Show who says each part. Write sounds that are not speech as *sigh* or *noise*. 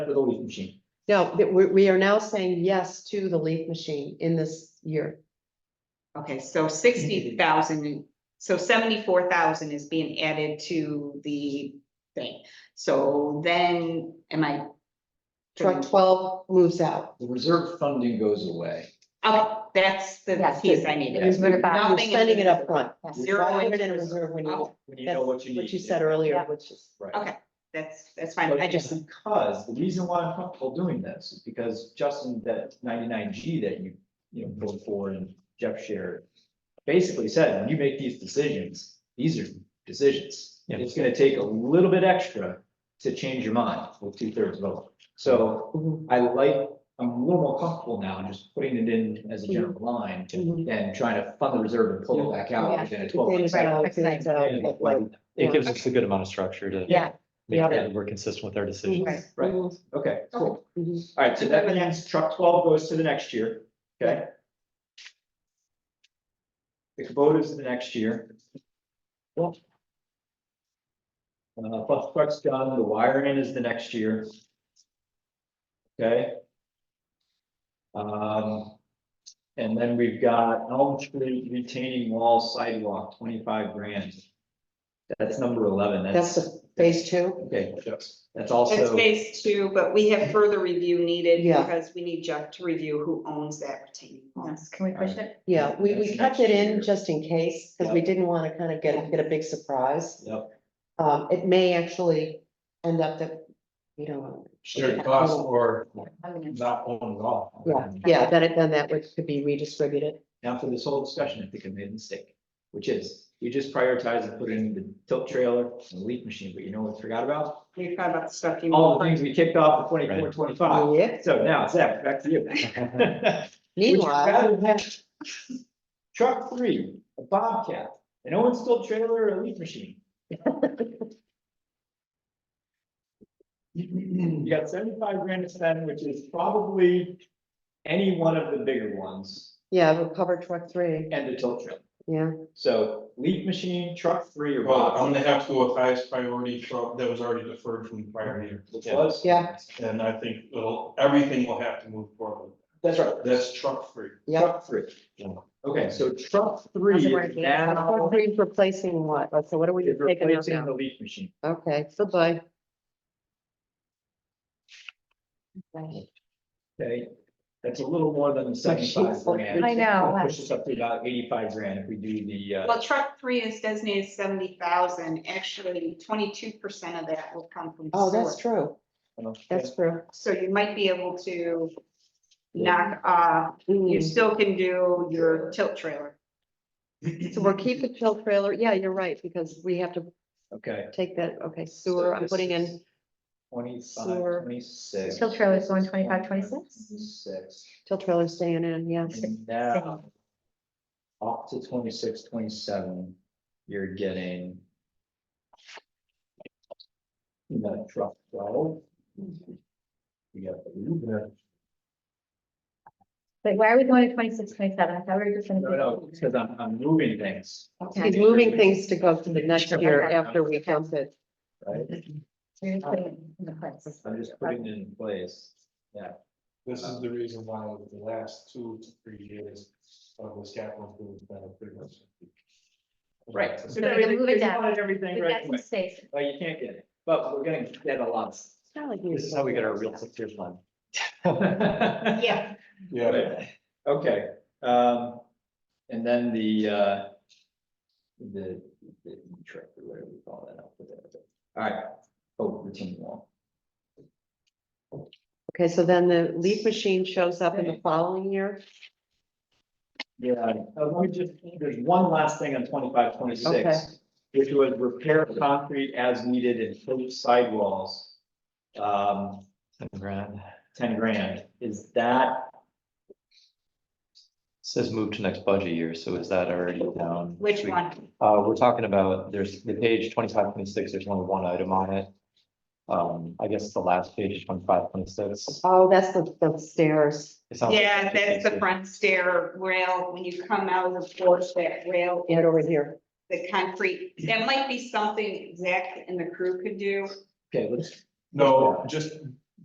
Speaker 1: for the leaf machine.
Speaker 2: No, that we, we are now saying yes to the leaf machine in this year.
Speaker 3: Okay, so sixty thousand, so seventy-four thousand is being added to the thing. So then, am I?
Speaker 2: Truck twelve moves out.
Speaker 1: The reserve funding goes away.
Speaker 3: Okay, that's the
Speaker 4: Yes,
Speaker 3: piece I needed.
Speaker 4: Yes, what about-
Speaker 2: You're
Speaker 3: Nothing is-
Speaker 2: spending it up front.
Speaker 4: Yes.
Speaker 3: Zero
Speaker 2: Why
Speaker 3: in
Speaker 2: put it in
Speaker 3: reserve?
Speaker 2: reserve when you,
Speaker 3: Oh,
Speaker 1: When you know what you need.
Speaker 2: what you said earlier,
Speaker 4: Yeah.
Speaker 2: which is,
Speaker 1: Right.
Speaker 3: Okay. That's, that's fine. I
Speaker 1: But it's
Speaker 3: just,
Speaker 1: Because the reason why I'm comfortable doing this is because Justin, that ninety-nine G that you, you know, put forward and Jeff shared. Basically said, when you make these decisions, these are decisions.
Speaker 5: Yeah.
Speaker 1: It's gonna take a little bit extra to change your mind with two-thirds vote. So
Speaker 2: Mhm.
Speaker 1: I like, I'm a little more comfortable now just putting it in as a general line
Speaker 2: Mhm.
Speaker 1: than trying to fund the reserve and pull Mm-hmm. Oh, it back out
Speaker 4: Yeah.
Speaker 1: within a twelve.
Speaker 2: Things out,
Speaker 4: Right.
Speaker 2: things out,
Speaker 1: Yeah.
Speaker 2: like,
Speaker 5: It gives us a good amount of structure to.
Speaker 4: Yeah.
Speaker 5: Make
Speaker 2: Yeah.
Speaker 5: sure that we're consistent with our decisions.
Speaker 3: Right.
Speaker 1: Right, okay, Mm-hmm. cool.
Speaker 2: Mhm.
Speaker 1: All right, so that means truck twelve goes to the next year, okay? The Kubota's the next year. Uh, plus Uh, truck's done, the wiring is the next year. Okay? Um, and then we've got Elm Street retaining wall sidewalk, twenty-five grand. That's number eleven,
Speaker 2: That's
Speaker 1: that's,
Speaker 2: the phase two.
Speaker 1: okay, that's that's
Speaker 3: it's
Speaker 1: also,
Speaker 3: phase two, but we have further review needed
Speaker 2: Yeah.
Speaker 3: because we need Jeff to review who owns that retaining wall.
Speaker 4: Yes, can we push it?
Speaker 2: Yeah, we, we
Speaker 1: That's
Speaker 2: kept
Speaker 1: next
Speaker 2: it
Speaker 1: year.
Speaker 2: in just in case, because we
Speaker 1: Yeah.
Speaker 2: didn't want to kind of get, get a big surprise.
Speaker 1: yep.
Speaker 2: Um, it may actually end up that, you know.
Speaker 6: shared costs or
Speaker 4: I mean,
Speaker 6: not owned at all.
Speaker 2: Yeah, yeah, then it, then that would, could be redistributed.
Speaker 1: Now for this whole discussion, I think I made a mistake, which is we just prioritized and put in the tilt trailer and the leaf machine, but you know what we forgot about?
Speaker 3: We forgot about the stuff you.
Speaker 1: All the things we kicked off in 24, 25.
Speaker 2: Yeah.
Speaker 1: So now Zach, back to you. Would you *laughs*
Speaker 2: Meanwhile,
Speaker 1: rather have Truck three, a Bobcat, an Owens tilt trailer or a leaf machine? You got seventy-five grand to spend, which is probably any one of the bigger ones
Speaker 2: yeah, recover truck three,
Speaker 1: and the tilt trailer.
Speaker 2: yeah.
Speaker 1: So leaf machine, truck three or
Speaker 6: Well, I'm
Speaker 1: bottom,
Speaker 6: gonna have to go with highest priority truck that was already deferred from the prior year.
Speaker 1: which was?
Speaker 2: Yeah.
Speaker 6: And I think it'll, everything will have to move forward.
Speaker 1: That's right,
Speaker 6: That's truck free.
Speaker 2: Yeah,
Speaker 1: truck three.
Speaker 5: Yeah.
Speaker 1: Okay, so truck three
Speaker 4: Doesn't work,
Speaker 1: is
Speaker 4: yeah.
Speaker 1: now
Speaker 2: Truck three's replacing what? So what are we
Speaker 1: is
Speaker 2: taking out
Speaker 1: replacing
Speaker 2: now?
Speaker 1: the leaf machine.
Speaker 2: Okay, goodbye.
Speaker 1: Okay, that's a little more than the seventy-five grand.
Speaker 4: I know.
Speaker 1: Push us up to about eighty-five grand if we do the, uh,
Speaker 3: Well, truck three is designated seventy thousand. Actually, twenty-two percent of that will come from.
Speaker 2: Oh,
Speaker 3: sewer.
Speaker 2: that's true. That's true.
Speaker 3: So you might be able to knock, uh, you
Speaker 2: Mm.
Speaker 3: still can do your tilt trailer.
Speaker 2: So we'll keep the tilt trailer. Yeah, you're right, because we have to
Speaker 1: okay.
Speaker 2: take that, okay, sewer, I'm putting in, Sewer.
Speaker 1: Twenty-five, twenty-six.
Speaker 4: Tilt trailer is going 25, 26?
Speaker 1: Six,
Speaker 2: tilt trailer staying in, yes.
Speaker 1: and now up to twenty-six, twenty-seven, you're getting you got truck twelve. You got the Uber.
Speaker 4: But why are we going to twenty-six, twenty-seven? I thought we were just gonna.
Speaker 1: No, no, because I'm, I'm moving things,
Speaker 4: Okay.
Speaker 2: He's moving things to go to the next year
Speaker 4: Okay.
Speaker 2: after we dump it.
Speaker 1: right?
Speaker 4: We're just putting it in the place.
Speaker 1: I'm just putting it in place.
Speaker 6: This is the reason why over the last two to three years uh, of this capital improvement plan, I've pretty much.
Speaker 1: Right.
Speaker 4: So we're gonna move it down.
Speaker 1: Everything
Speaker 4: We got
Speaker 1: right
Speaker 4: some
Speaker 1: away.
Speaker 4: space.
Speaker 1: Oh, you can't get it, but we're gonna get a lot.
Speaker 2: It's not
Speaker 3: Mhm.
Speaker 2: like we-
Speaker 5: This is how we get our real picture line.
Speaker 1: Yeah.
Speaker 3: Yeah,
Speaker 6: Yeah,
Speaker 1: *laughs* Okay, um, and then the, uh, the, the trip, or whatever we call that up with it. All right, oh, routine wall.
Speaker 2: Okay, so then the leaf machine shows up in the following year.
Speaker 1: Yeah, uh, let me just, there's one last thing on twenty-five,
Speaker 2: Okay.
Speaker 1: twenty-six, which was repair concrete as needed and fill sidewalls. Um,
Speaker 5: Grand.
Speaker 1: ten grand, is that,
Speaker 5: Says move to next budget year, so is that already down?
Speaker 3: which one?
Speaker 5: Uh, we're talking about, there's the page twenty-five, twenty-six, there's only one item on it. Um, I guess the last page is twenty-five, twenty-six.
Speaker 2: Oh, that's the, the stairs.
Speaker 5: It sounds like
Speaker 3: Yeah,
Speaker 5: it's
Speaker 3: that's the
Speaker 5: basic.
Speaker 3: front stair rail. When you come out of the porch, that rail,
Speaker 2: Get over here.
Speaker 3: the concrete, that might be something Zach and the crew could do.
Speaker 1: okay, let's,
Speaker 6: no, just